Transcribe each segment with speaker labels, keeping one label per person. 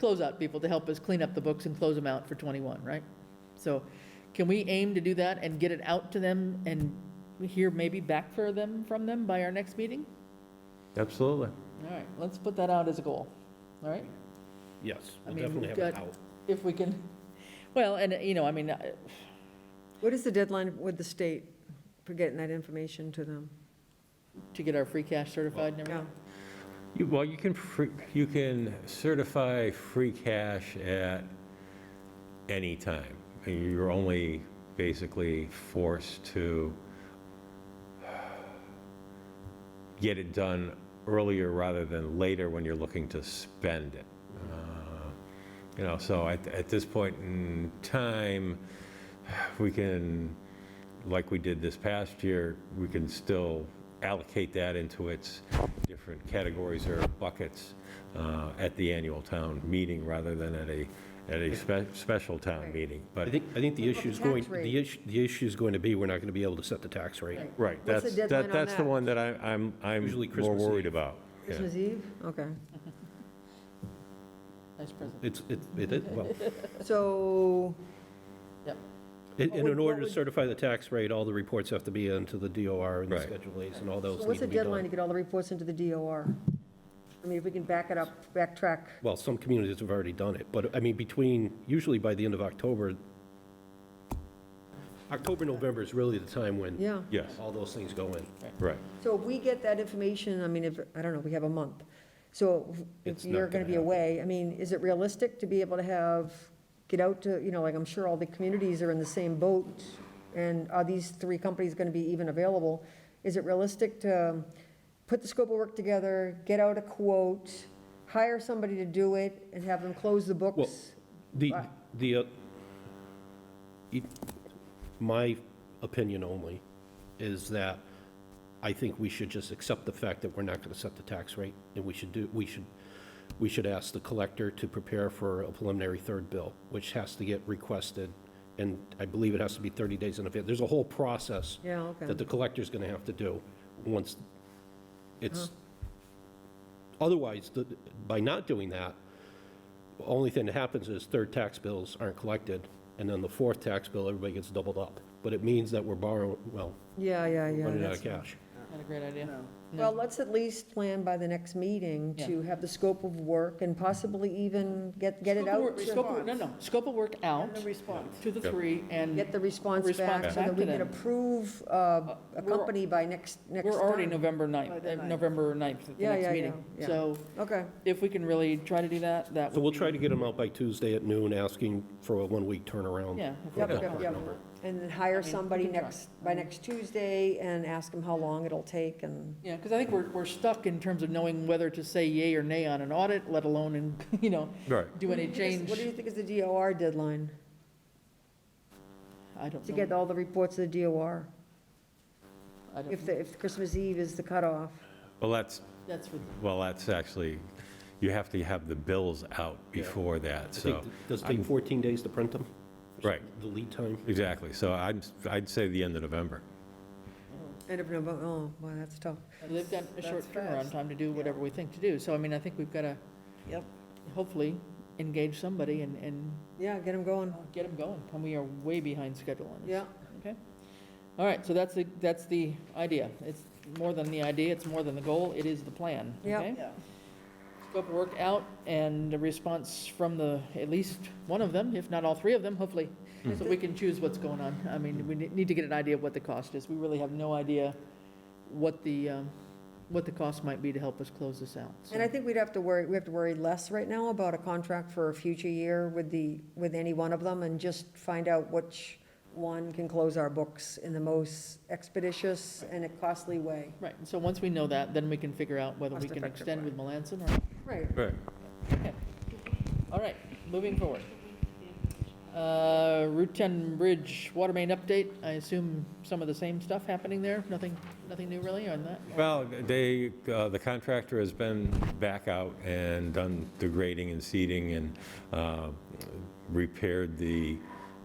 Speaker 1: closeout people to help us clean up the books and close them out for '21, right? So can we aim to do that and get it out to them and hear maybe back for them, from them by our next meeting?
Speaker 2: Absolutely.
Speaker 1: All right, let's put that out as a goal, all right?
Speaker 3: Yes,
Speaker 1: I
Speaker 3: we'll
Speaker 1: mean,
Speaker 3: definitely
Speaker 1: we've
Speaker 3: have it
Speaker 1: got-
Speaker 3: out.
Speaker 1: If we can, well, and, you know, I mean, uh,
Speaker 4: What is the deadline with the state for getting that information to them?
Speaker 1: to get our free cash certified and
Speaker 4: Yeah,
Speaker 1: everything.
Speaker 2: You- Well, you can, free- you can certify free cash at any time. You're only basically forced to get it done earlier rather than later when you're looking to spend it. Uh, You know, so at, at this point in time, we can, like we did this past year, we can still allocate that into its different categories or buckets uh, at the annual town meeting rather than at a, at a spe- special town
Speaker 4: Right.
Speaker 2: meeting.
Speaker 3: I
Speaker 2: But,
Speaker 3: think, I think the
Speaker 4: What about
Speaker 3: issue is
Speaker 4: the tax
Speaker 3: going,
Speaker 4: rate?
Speaker 3: the issue, the issue is going to be, we're not going to be able to set the tax rate.
Speaker 1: Right.
Speaker 2: right,
Speaker 4: What's the
Speaker 2: that's,
Speaker 4: deadline
Speaker 2: that-
Speaker 4: on
Speaker 2: that's the
Speaker 4: that?
Speaker 2: one that I- I'm,
Speaker 3: Usually
Speaker 2: I'm more
Speaker 3: Christmas
Speaker 2: worried
Speaker 3: Eve.
Speaker 2: about. Yeah.
Speaker 4: Christmas Eve? Okay.
Speaker 1: Vice President.
Speaker 3: It's, it, it, is- well,
Speaker 4: So,
Speaker 3: in,
Speaker 4: What would-
Speaker 3: in
Speaker 4: what
Speaker 3: order to
Speaker 4: would-
Speaker 3: certify the tax rate, all the reports have to be into the DOR and the
Speaker 2: Right.
Speaker 3: Schedule As and all
Speaker 4: so
Speaker 3: those need
Speaker 4: what's
Speaker 3: to
Speaker 4: the
Speaker 3: be
Speaker 4: deadline to
Speaker 3: done.
Speaker 4: get all the reports into the DOR? I mean, if we can back it up, backtrack.
Speaker 3: Well, some communities have already done it, but, I mean, between, usually by the end of October, October, November is really the time when
Speaker 4: Yeah.
Speaker 2: Yes,
Speaker 3: all those things go in.
Speaker 2: right.
Speaker 4: So if we get that information, I mean, if, I don't know, we have a month. So if
Speaker 2: It's not
Speaker 4: you're going
Speaker 2: gonna
Speaker 4: to be
Speaker 2: happen.
Speaker 4: away, I mean, is it realistic to be able to have, get out to, you know, like, I'm sure all the communities are in the same boat, and are these three companies going to be even available? Is it realistic to um, put the scope of work together, get out a quote, hire somebody to do it, and have them close the books?
Speaker 3: The,
Speaker 4: Right.
Speaker 3: the, uh, it- my opinion only is that I think we should just accept the fact that we're not going to set the tax rate, and we should do, we should, we should ask the collector to prepare for a preliminary third bill, which has to get requested, and I believe it has to be 30 days in advance. There's a whole process
Speaker 4: Yeah, okay.
Speaker 3: that the collector's going to have to do once it's,
Speaker 4: Uh-huh.
Speaker 3: otherwise, the- by not doing that, only thing that happens is third tax bills aren't collected, and then the fourth tax bill, everybody gets doubled up. But it means that we're borrowing, well,
Speaker 4: Yeah, yeah, yeah.
Speaker 3: running out
Speaker 4: that's-
Speaker 3: of cash.
Speaker 1: Not a great idea.
Speaker 4: Well, let's at least plan by the next meeting to have the scope of work and possibly even get, get it
Speaker 1: Scope of
Speaker 4: out
Speaker 1: work-
Speaker 4: to
Speaker 1: scope of- No, no, scope of work out
Speaker 5: response.
Speaker 1: to the three and.
Speaker 4: get the response
Speaker 1: Response
Speaker 4: back so that
Speaker 1: back
Speaker 4: we
Speaker 1: to
Speaker 4: can
Speaker 1: them.
Speaker 4: approve uh, a
Speaker 1: we're-
Speaker 4: company by next, next time. Oh,
Speaker 1: We're already November
Speaker 5: By
Speaker 1: 9th,
Speaker 5: the
Speaker 1: uh,
Speaker 5: ninth.
Speaker 1: November 9th at the
Speaker 4: Yeah,
Speaker 1: next
Speaker 4: yeah,
Speaker 1: meeting.
Speaker 4: yeah, yeah.
Speaker 1: So
Speaker 4: Okay,
Speaker 1: if we can really try to do that, that
Speaker 3: So
Speaker 1: would
Speaker 3: we'll
Speaker 1: be-
Speaker 3: try to get them out by Tuesday at noon, asking for a one-week turnaround.
Speaker 1: Yeah.
Speaker 3: for a
Speaker 4: yep,
Speaker 3: ballpark
Speaker 4: yep, yep.
Speaker 3: number.
Speaker 4: And then
Speaker 1: I
Speaker 4: hire
Speaker 1: mean, we
Speaker 4: somebody
Speaker 1: can try.
Speaker 4: next, by next Tuesday and ask them how long it'll take and,
Speaker 1: Yeah, because I think we're, we're stuck in terms of knowing whether to say yay or nay on an audit, let alone in, you know,
Speaker 2: Right.
Speaker 1: do any
Speaker 4: What do you think is-
Speaker 1: change.
Speaker 4: What do you think is the DOR deadline
Speaker 1: I don't
Speaker 4: to get
Speaker 1: know.
Speaker 4: all the reports to the DOR?
Speaker 1: I don't-
Speaker 4: If, the if Christmas Eve is the cutoff?
Speaker 2: Well, that's,
Speaker 1: That's for,
Speaker 2: well, that's actually, you have to have the bills out
Speaker 3: Yeah.
Speaker 2: before that,
Speaker 3: I
Speaker 2: so,
Speaker 3: think, does it take 14 days to print them?
Speaker 2: right,
Speaker 3: The lead time?
Speaker 2: exactly. So I'm, I'd say the end of November.
Speaker 4: End of November, oh, wow, that's tough.
Speaker 1: they've got a
Speaker 5: That's-
Speaker 1: short
Speaker 5: that's
Speaker 1: turnaround
Speaker 5: fast.
Speaker 1: time to do whatever we think to do. So I mean, I think we've got to
Speaker 5: Yep.
Speaker 1: hopefully engage somebody and, and
Speaker 4: Yeah, get them going,
Speaker 1: get them going. And we are way behind schedule on this.
Speaker 4: yeah.
Speaker 1: All right, so that's the, that's the idea. It's more than the idea, it's more than the goal, it is the plan,
Speaker 4: Yep.
Speaker 1: okay?
Speaker 5: Yeah.
Speaker 1: Scope of work out and a response from the, at least one of them, if not all three of them, hopefully,
Speaker 4: Hmm.
Speaker 1: so we can choose what's going on. I mean, we ne- need to get an idea of what the cost is. We really have no idea what the, um, what the cost might be to help us close this out. so.
Speaker 4: And I think we'd have to worry, we have to worry less right now about a contract for a future year with the, with any one of them, and just find out which one can close our books in the most expeditious and a costly way.
Speaker 1: Right, and so once we know that, then we can figure out whether we can
Speaker 4: Cost-effective
Speaker 1: extend
Speaker 4: way.
Speaker 1: with Melanson or
Speaker 4: Right.
Speaker 2: Right.
Speaker 1: All right, moving forward. Uh, Route 10 Bridge Water Main Update, I assume some of the same stuff happening there? Nothing, nothing new really on that?
Speaker 2: Well, they, uh, the contractor has been back out and done the grading and seeding and uh, repaired the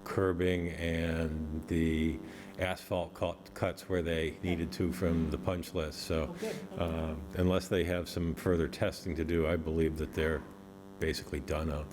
Speaker 2: curbing and the asphalt cut- cuts where they needed to from the punch list. So uh,
Speaker 1: good,
Speaker 2: um, unless they have some further testing to do, I believe that they're basically done out there.